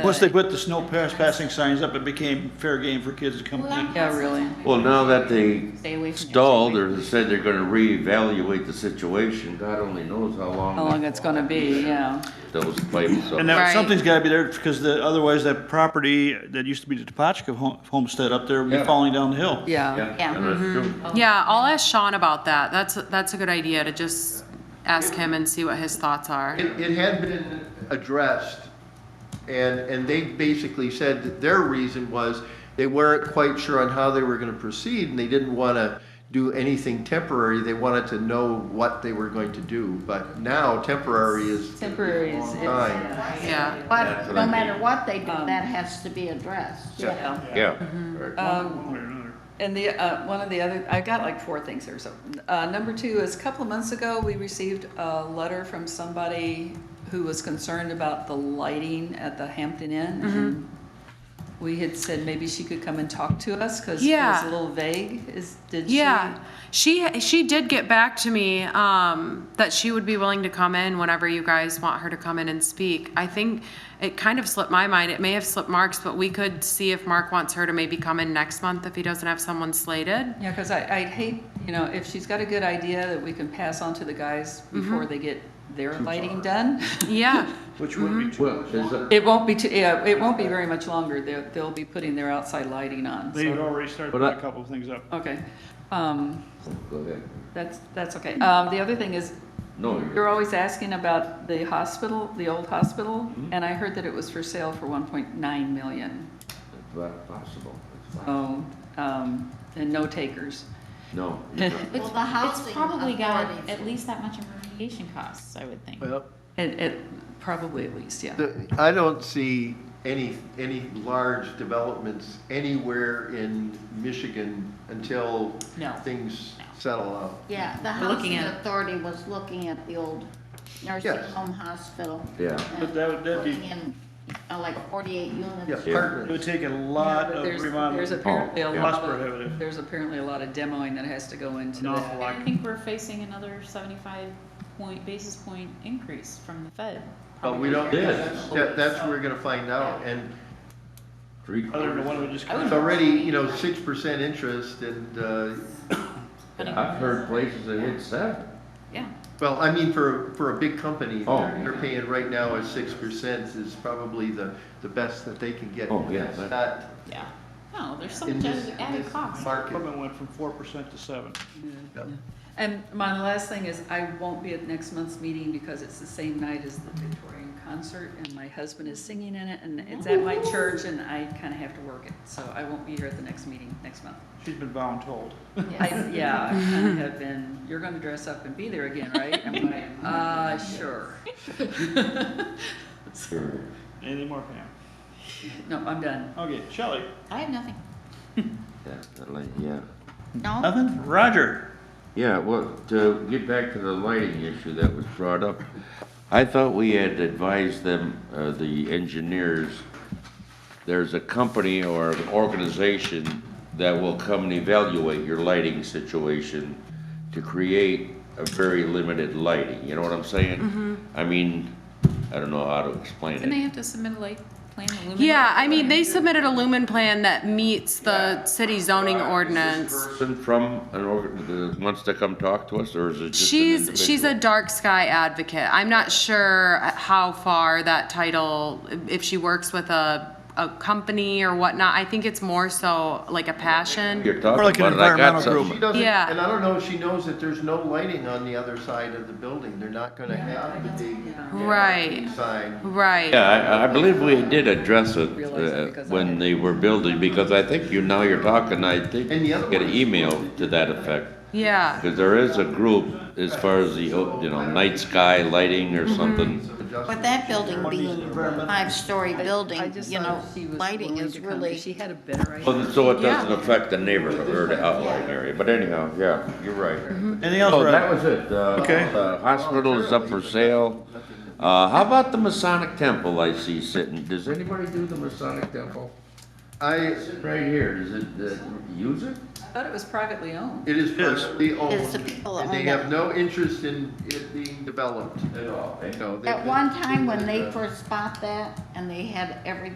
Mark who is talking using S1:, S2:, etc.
S1: Once they put the snow pass passing signs up, it became fair game for kids to come in.
S2: Yeah, really.
S3: Well, now that they
S2: Stay away from it.
S3: stalled or they said they're gonna reevaluate the situation, God only knows how
S2: How long
S3: long
S2: it's gonna be, yeah.
S3: those pipes
S1: And
S3: up.
S1: now
S2: Right.
S1: something's gotta be there because the, otherwise that property that used to be the Topachka home- homestead up there would be
S3: Yeah.
S1: falling down the hill.
S2: Yeah.
S3: Yeah, and that's true.
S4: Yeah, I'll ask Sean about that. That's, that's a good idea to just ask him and see what his thoughts are.
S5: It, it had been addressed, and, and they basically said that their reason was they weren't quite sure on how they were gonna proceed, and they didn't wanna do anything temporary, they wanted to know what they were going to do, but now temporary is.
S2: Temporary is- it's-
S5: Fine.
S4: Yeah.
S3: That's
S6: But
S3: what
S6: no
S3: I
S6: matter what they do,
S2: Um,
S6: that has to be addressed.
S2: Yeah.
S3: Yeah.
S7: And the, uh, one of the other, I've got like four things here, so, uh, number two is a couple of months ago, we received a letter from somebody who was concerned about the lighting at the Hampton Inn. and We had said maybe she could come and talk to us, cause it was
S4: Mm-hmm. Yeah.
S7: a little vague, is, did she?
S4: Yeah, she she did get back to me um, that she would be willing to come in whenever you guys want her to come in and speak. I think it kind of slipped my mind. It may have slipped Mark's, but we could see if Mark wants her to maybe come in next month if he doesn't have someone slated.
S7: Yeah, cause I, I'd hate, you know, if she's got a good idea that we can pass on to the guys
S4: Mm-hmm.
S7: before they get their lighting done.
S4: Yeah,
S1: Which would be
S3: Well, is it,
S7: It won't be too, yeah, it won't be very much longer. They'll, they'll be putting their outside lighting on,
S1: They've
S7: so,
S1: already started
S3: But
S1: putting
S3: I-
S1: a couple of things up.
S7: okay. Um,
S3: go ahead.
S7: that's, that's okay. Um, the other thing is,
S3: No, you're,
S7: you're always asking about the hospital, the old hospital,
S1: Mm-hmm.
S7: and I heard that it was for sale for one point nine million.
S3: it's not possible. It's fine.
S7: Oh, um, and no takers.
S3: No. you're not.
S6: Well, the housing
S2: It's probably got
S6: authorities-
S2: at least that much in remediation costs, I would think.
S5: Well,
S7: It, it, probably at least, yeah.
S5: the- I don't see any, any large developments anywhere in Michigan until
S2: No.
S5: things settle out.
S6: Yeah, the
S2: We're looking
S6: housing
S2: at-
S6: authority was looking at the old nursing
S5: Yes.
S6: home hospital.
S3: Yeah.
S1: But that would- that'd be-
S6: Looking in, uh, Like forty-eight
S5: Yeah,
S6: units.
S1: It
S5: partners.
S1: would take a lot of
S7: There's-
S1: remodeling.
S7: There's apparently a
S3: Oh, yeah.
S7: lot
S1: Cost
S7: of,
S1: prohibitive.
S7: there's apparently a lot of demoing that has to go into
S1: An awful
S7: that.
S1: lot.
S2: I think we're facing another seventy-five point, basis point increase from the Fed.
S5: But we don't,
S3: Yes.
S5: that, that's where we're gonna find out, and
S3: Three
S1: Other than the
S3: quarters.
S1: one we just.
S5: it's already, you know, six percent interest, and, uh,
S3: I've heard places that hit seven.
S2: Yeah.
S5: well, I mean, for, for a big company,
S3: Oh.
S5: they're they're paying right now at six percent is probably the, the best that they can get.
S3: Oh, yeah,
S5: It's
S3: that-
S5: not
S2: Yeah. No, Oh, there's
S5: in
S2: some
S5: this,
S2: added,
S5: in
S2: added
S5: this
S2: cost.
S5: market.
S1: Equipment went from four percent to seven.
S5: Yep.
S7: And my last thing is, I won't be at next month's meeting because it's the same night as the Victorian concert, and my husband is singing in it, and it's at my church, and I kind of have to work it, so I won't be here at the next meeting next month.
S1: She's been bound told.
S7: I- Yeah, I kind of have been, you're going to dress up and be there again, right? I'm like, uh, sure.
S3: Sure.
S1: Anything more, Pam?
S7: No, I'm done.
S1: Okay, Shelley?
S2: I have nothing.
S3: Yeah, that light, yeah.
S6: No?
S1: Nothing? Roger?
S3: Yeah, well, to get back to the lighting issue that was brought up, I thought we had advised them, uh, the engineers, there's a company or an organization that will come and evaluate your lighting situation to create a very limited lighting, you know what I'm saying?
S4: Mm-hmm.
S3: I mean, I don't know how to explain
S2: Didn't they
S3: it.
S2: have to submit a light plan? a luminary
S4: yeah. I mean,
S2: plan?
S4: they submitted a lumen plan that meets the city zoning ordinance.
S3: Person from an org, wants to come talk to us, or is it just an
S4: She's she's a
S3: individual?
S4: dark sky advocate. I'm not sure how far that title, if she works with a a company or whatnot. I think it's more so like a passion.
S3: You're
S1: More like
S3: talking
S1: an
S3: about it, I got
S1: environmental group.
S3: something.
S5: She doesn't,
S4: Yeah.
S5: and I don't know if she knows that there's no lighting on the other side of the building, they're not gonna have the big.
S4: Right.
S5: Sign.
S4: Right.
S3: Yeah, I, I believe we did address it
S7: Realize it
S3: uh,
S7: because I
S3: when
S7: had-
S3: they were building, because I think you, now you're talking, I think,
S5: And the other
S3: get an
S5: one-
S3: email to that effect.
S4: Yeah.
S3: Because there is a group as far as the, oh, you know, night sky lighting
S7: Mm-hmm.
S3: or something.
S6: But that building being a five-story
S7: I
S6: building,
S7: just
S6: you
S7: thought
S6: know,
S7: she was
S6: lighting
S7: willing
S6: is
S7: to come, 'cause
S6: really.
S7: She had a better idea.
S3: Well, So it doesn't
S4: Yeah.
S3: affect the neighborhood or the outlying area, but anyhow, yeah, you're
S7: Mm-hmm.
S3: right.
S1: Anything else,
S3: Oh, that
S1: Roger?
S3: was it. Uh,
S1: Okay.
S3: The hospital is up for sale. Uh, how about the Masonic Temple I see sitting? Does anybody do the Masonic Temple?
S5: I,
S3: Right here, is it, the use it?
S7: I thought it was privately owned.
S5: it is
S1: Yes.
S5: privately owned.
S6: It's the people that
S5: And they
S6: own
S5: have
S6: it.
S5: no interest in it being
S3: Oh,
S5: developed at all, no. uh, they've
S6: At
S5: been-
S6: one time, when they first bought that, and they had every